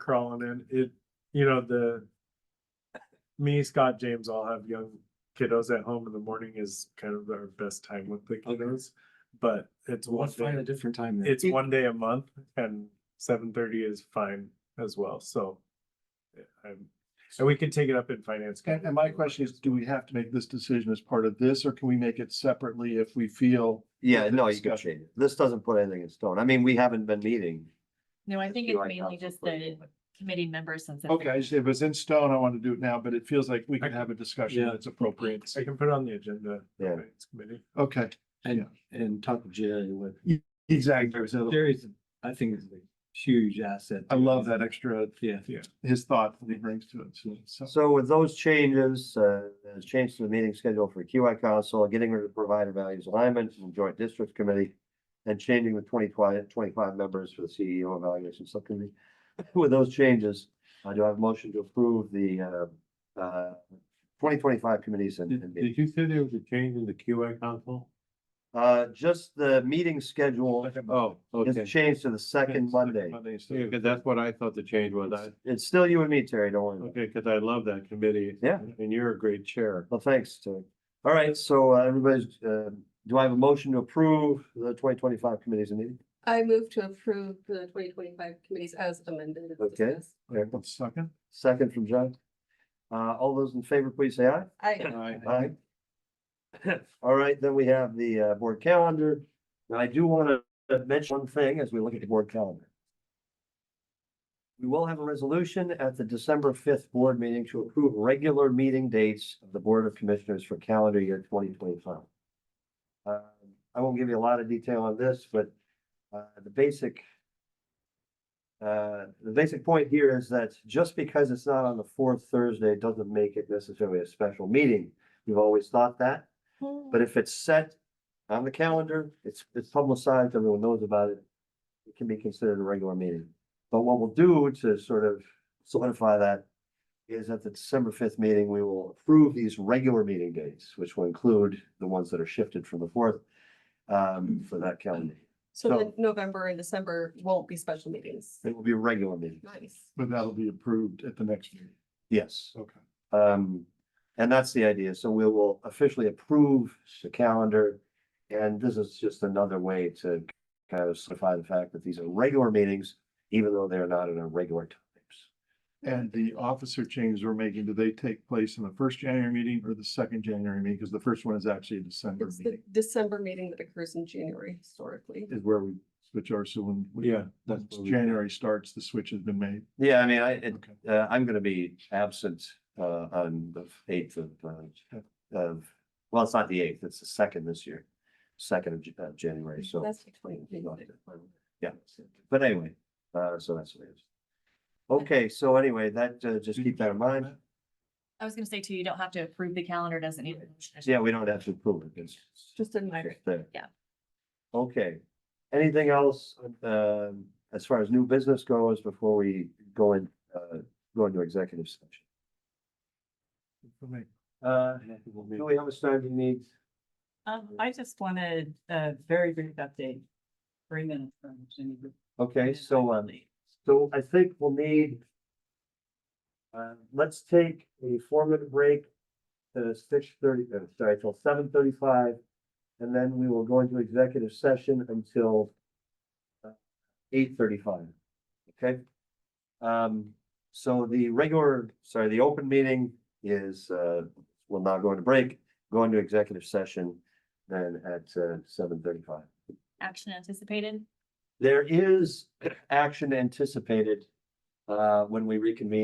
crawling in, it, you know, the. Me, Scott, James all have young kiddos at home in the morning is kind of our best time with the kiddos. But it's We'll one find a day, different time then. it's one day a month and seven thirty is fine as well, so. yeah, I'm- And we can take it up in finance. And, and my question is, do we have to make this decision as part of this, or can we make it separately if we feel? Yeah, the no, you can discussion. change it. This doesn't put anything in stone. I mean, we haven't been meeting. No, I think You it's are mainly council just the president. committee members since. it's- Okay, I just- if it's in stone, I want to do it now, but it feels like we can have a discussion Yeah. that's appropriate. I can put it on the agenda. for Yeah. finance Committee. Okay, And, and talk to Jerry with, exactly. So Jerry's, I think is a huge asset. I love that extra, Yeah. his thought that he brings to it, so- so. So with those changes, uh, there's change to the meeting schedule for QI Council, getting rid of provider values alignment and joint district committee. And changing the 20 25 members for the CEO evaluation subcommittee. With those changes, I do I have a motion to approve the, uh, uh, twenty twenty-five committees and. and meetings? you say there was a change in the QA council? Uh, just the meeting schedule Oh, okay. is changed to the second Monday. Yeah, because that's what I thought the change was. I, It's- It's still you and me, Terry, don't worry about it. okay, because I love that committee. Yeah. And you're a great chair. Well, thanks, Terry. All right, so uh, everybody's, uh, do I have a motion to approve the twenty twenty-five committees and meeting? I move to approve the twenty twenty-five committees as amended. and Okay. discussed. One second. Second from John. Uh, all those in favor, please say aye. I, Aye. All right, then we have the uh, board calendar. Now, I do want to mention one thing as we look at the board calendar. We will have a resolution at the December fifth board meeting to approve regular meeting dates of the Board of Commissioners for calendar year twenty twenty-five. Uh, I won't give you a lot of detail on this, but uh, the basic uh, the basic point here is that just because it's not on the fourth Thursday, it doesn't make it necessarily a special meeting. We've always thought that, but if it's set on the calendar, it's, it's publicized, everyone knows about it. It can be considered a regular meeting. But what we'll do to sort of solidify that is at the December fifth meeting, we will approve these regular meeting dates, which will include the ones that are shifted from the fourth um, for that calendar. so then November and December won't be special meetings. It will be a regular meeting. Nice. But that'll be approved at the next meeting. Yes. Okay. Um, and that's the idea. So we will officially approve the calendar. And this is just another way to kind of solidify the fact that these are regular meetings, even though they're not in our regular times. And the officer changes we're making, do they take place in the first January meeting or the second January meeting? Because the first one is actually a December It's the meeting, December meeting that occurs in January historically. is where we switch our, so when. we- Yeah, Once that's what we- January starts, the switch has been made. Yeah, I mean, I, it- Okay. uh, I'm gonna be absent, uh, on the eighth of, uh, of, well, it's not the eighth, it's the second this year. Second of J- uh, January, so. That's the 20th. Yeah, but anyway, uh, so that's what it is. Okay, so anyway, that, uh, just keep that in mind. I was gonna say too, you don't have to approve the calendar, doesn't need. a motion. Yeah, we don't have to approve it. It's Just a it's minor. there. Yeah. Okay. Anything else, um, as far as new business goes before we go in, uh, go into executive session? Uh, do we have a start? Do you need? Um, I just wanted a very brief update. Three minutes from Jenny. Okay, so, um, so I think we'll need. Uh, let's take a four minute break to six thirty, uh, sorry, till seven thirty five. And then we will go into executive session until. uh, Eight thirty five, okay? Um, so the regular, sorry, the open meeting is, uh, will now go into break, go into executive session. Then at, uh, seven thirty five. Action anticipated? There is action anticipated uh, when we reconvene.